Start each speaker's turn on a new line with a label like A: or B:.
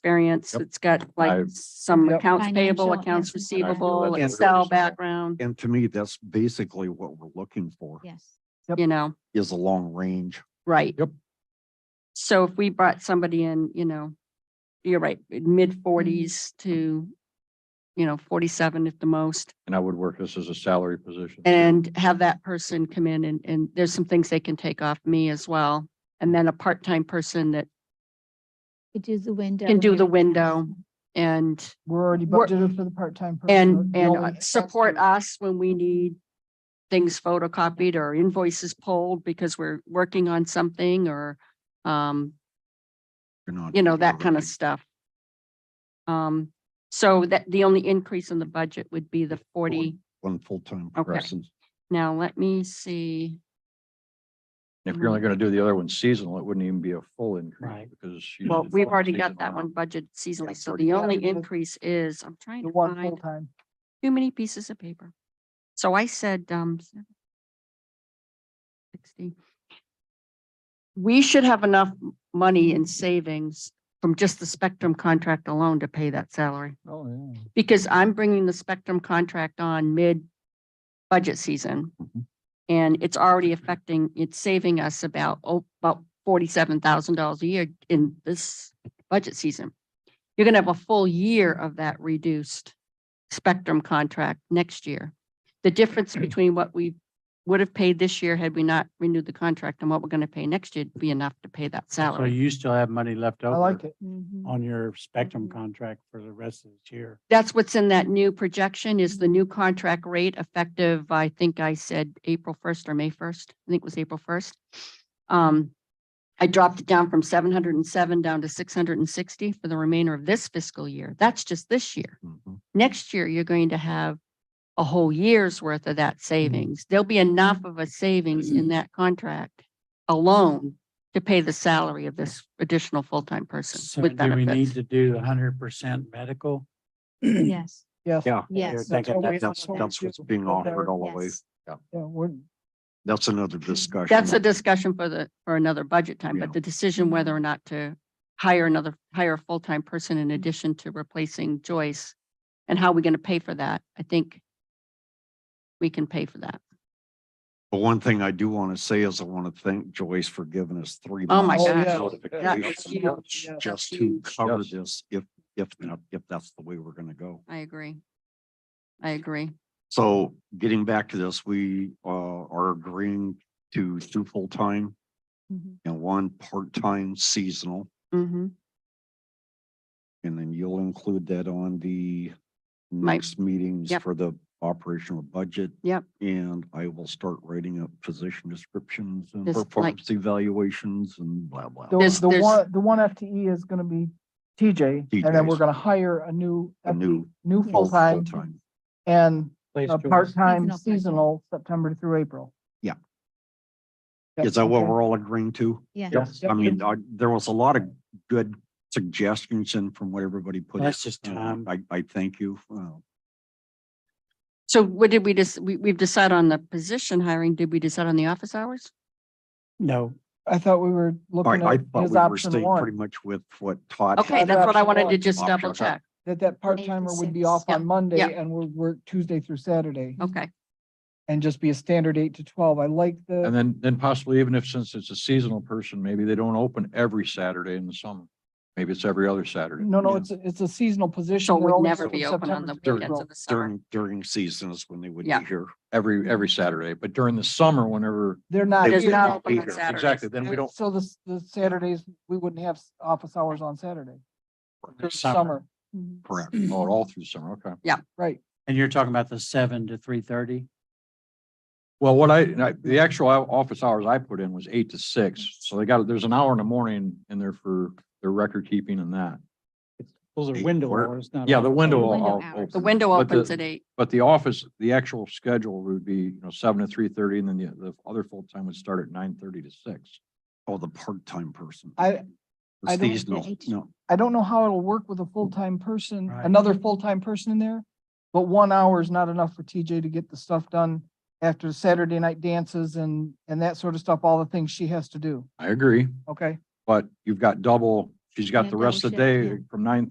A: experience.
B: Yep.
A: It's got
B: I-
A: like some
B: Yep.
A: accounts payable,
C: Financial
A: accounts
C: information.
A: receivable,
B: And-
A: Excel background,
B: And to me, that's basically what we're looking for
C: Yes.
A: you know,
B: is a long range.
A: right.
B: Yep.
A: So if we brought somebody in, you know, you're right, mid forties
C: Mm-hmm.
A: to, you know, forty-seven at the most,
B: And I would work this as a salary position.
A: and have that person come in and, and there's some things they can take off me as well. And then a part-time person that
C: Could do the window.
A: can do the
C: everything.
A: window and
D: We're already
A: We're-
D: budgeted for the part-time. person.
A: And,
D: The
A: and
D: only-
A: uh, support us when we need things photocopied or invoices pulled because we're working on something or, um,
B: You're not-
A: you know, that kind of
B: Right.
A: stuff. Um, so that the only increase in the budget would be the forty.
B: One full-time
A: Okay.
B: person.
A: Now, let me see.
E: If you're
A: Mm-hmm.
E: only gonna do the other one seasonal, it wouldn't even be a full increase
D: Right.
E: because. you
A: Well,
E: did
A: we've
E: full
A: already got that
E: seasonal.
A: one budgeted seasonally. So
B: 40.
A: the only
D: Yeah.
A: increase is, I'm trying
D: The
A: to
D: one
A: find
D: full-time.
A: too many pieces of paper. So I said, um, sixty. We should have enough m- money in savings from just the Spectrum contract alone to pay that salary.
E: Oh, yeah.
A: Because I'm bringing the Spectrum contract on mid-budget season.
B: Mhm.
A: And it's already affecting, it's saving us about, oh, about forty-seven thousand dollars a year in this budget season. You're gonna have a full year of that reduced Spectrum contract next year. The difference between what we would have paid this year had we not renewed the contract and what we're gonna pay next year would be enough to pay that
F: So
A: salary.
F: you still have money left
D: I
F: over.
D: like it.
C: Mhm.
F: On your spectrum
C: Mhm.
F: contract for the rest of this year.
A: That's what's in that new projection is the new contract rate effective, I think I said April first or May first. I think it was April first. Um, I dropped it down from seven hundred and seven down to six hundred and sixty for the remainder of this fiscal year. That's just this year.
B: Mhm.
A: Next year, you're going to have a whole year's worth of that savings. There'll be enough of a savings in that contract alone to pay the salary of this additional full-time person
F: So
A: with
F: do we need
A: benefits.
F: to do the hundred percent medical?
C: Mm-hmm. Yes,
D: Yes.
B: Yeah.
C: yes.
F: Thank you.
D: what we-
B: That's,
D: what we
B: that's
D: do.
B: what's being offered all the way.
C: Yes.
D: Yeah, we're-
B: That's another discussion.
A: That's a discussion for the, for another budget time,
B: Yeah.
A: but the decision whether or not to hire another, hire a full-time person in addition to replacing Joyce and how we're going to pay for that, I think we can pay for that.
B: But one thing I do want to say is I want to thank Joyce for giving us three.
A: Oh, my
B: months
D: gosh.
B: of
D: Yeah.
B: notification
A: That was huge.
D: Yeah.
B: Just
A: That's
B: to
A: huge.
B: cover
E: Yes.
B: this, if, if, not- if that's the way we're going to go.
A: I agree. I agree.
B: So getting back to this, we uh are agreeing to two full-time
C: Mhm.
B: and one part-time seasonal.
A: Mm-hmm.
B: And then you'll include that on the
A: My-
B: next meetings
A: Yep.
B: for the operational budget.
A: Yep.
B: And I will start writing up position descriptions and
A: Just like-
B: performance evaluations and blah, blah.
D: The,
B: blah.
A: There's-
D: the
A: there's-
D: one, the one FTE is gonna be TJ, and then
B: TJ's.
D: we're gonna hire a new,
B: A new
D: FTE new
B: full-
D: full-time
B: full-time.
D: and
E: Place
D: a
E: Joyce.
D: part-time
C: Seasonal part-time.
D: seasonal, September through April.
B: Yeah.
D: Yep,
B: Is that what
D: okay.
B: we're all agreeing to?
C: Yes.
E: Yes.
B: I mean, I- there was a lot of good suggestions and from what everybody put. in.
F: That's just
B: Uh,
F: time.
B: I, I thank you. Uh,
A: So what did we just, we, we've decided on the position hiring. Did we decide on the office hours?
F: No,
D: I thought we were
B: I,
D: looking
B: I
D: at
B: thought
D: his
B: we were
D: option
B: staying pretty
D: one,
B: much with what Todd.
A: Okay,
B: had.
A: that's what I wanted to
D: Option
A: just double
B: one.
A: check.
D: that that part-timer would be off
A: Yep,
D: on Monday
A: yep.
D: and would work Tuesday through Saturday
A: Okay,
D: and just be a standard eight to twelve. I like
E: And
D: the,
E: then, then possibly even if, since it's a seasonal person, maybe they don't open every Saturday in the summer. Maybe it's every other Saturday.
D: no, no,
B: yeah.
D: it's, a- it's a seasonal position.
A: so
D: They're
A: we'll
D: only
A: never be
D: September
A: open on the
D: through
B: during-
A: weekends
D: April.
A: of the summer.
B: During, during seasons when they would be
A: Yeah.
B: here.
E: Every, every Saturday, but during the summer, whenever.
D: They're not.
B: They
A: Does
B: would
D: here.
A: not
B: not
A: open
B: be
A: on
B: here.
A: Saturdays.
E: Exactly, then we don't,
D: So the, s- the Saturdays, we wouldn't have s- office hours on Saturday,
F: the
D: during
F: summer.
D: summer,
C: Mhm.
B: Correct.
E: oh, all through summer, okay.
D: right?
F: And you're talking about the seven to three thirty?
E: Well, what I, and I- the actual o- office hours I put in was eight to six, so they got, there's an hour in the morning in there for their record keeping and that.
F: Those
B: are window Where-
F: hours, not.
E: Yeah, the window.
C: Window
E: will-
C: hours.
E: opens.
A: The window
E: But the-
A: opens at eight.
E: But the office, the actual schedule would be, you know, seven to three thirty, and then the, the other full-time would start at nine thirty to six.
B: Oh, the part-time person.
D: I-
B: The
D: I don't-
B: Seasonal, no,
D: I don't know how it'll work with a full-time person,
F: Right.
D: another full-time person in there. But one hour is not enough for TJ to get the stuff done after the Saturday night dances and, and that sort of stuff, all the things she has to do,
E: I agree,
D: okay?
E: but you've got double
B: she's got the
C: Yeah, double
B: rest of the
C: shift,
B: day
C: yeah.
B: from nine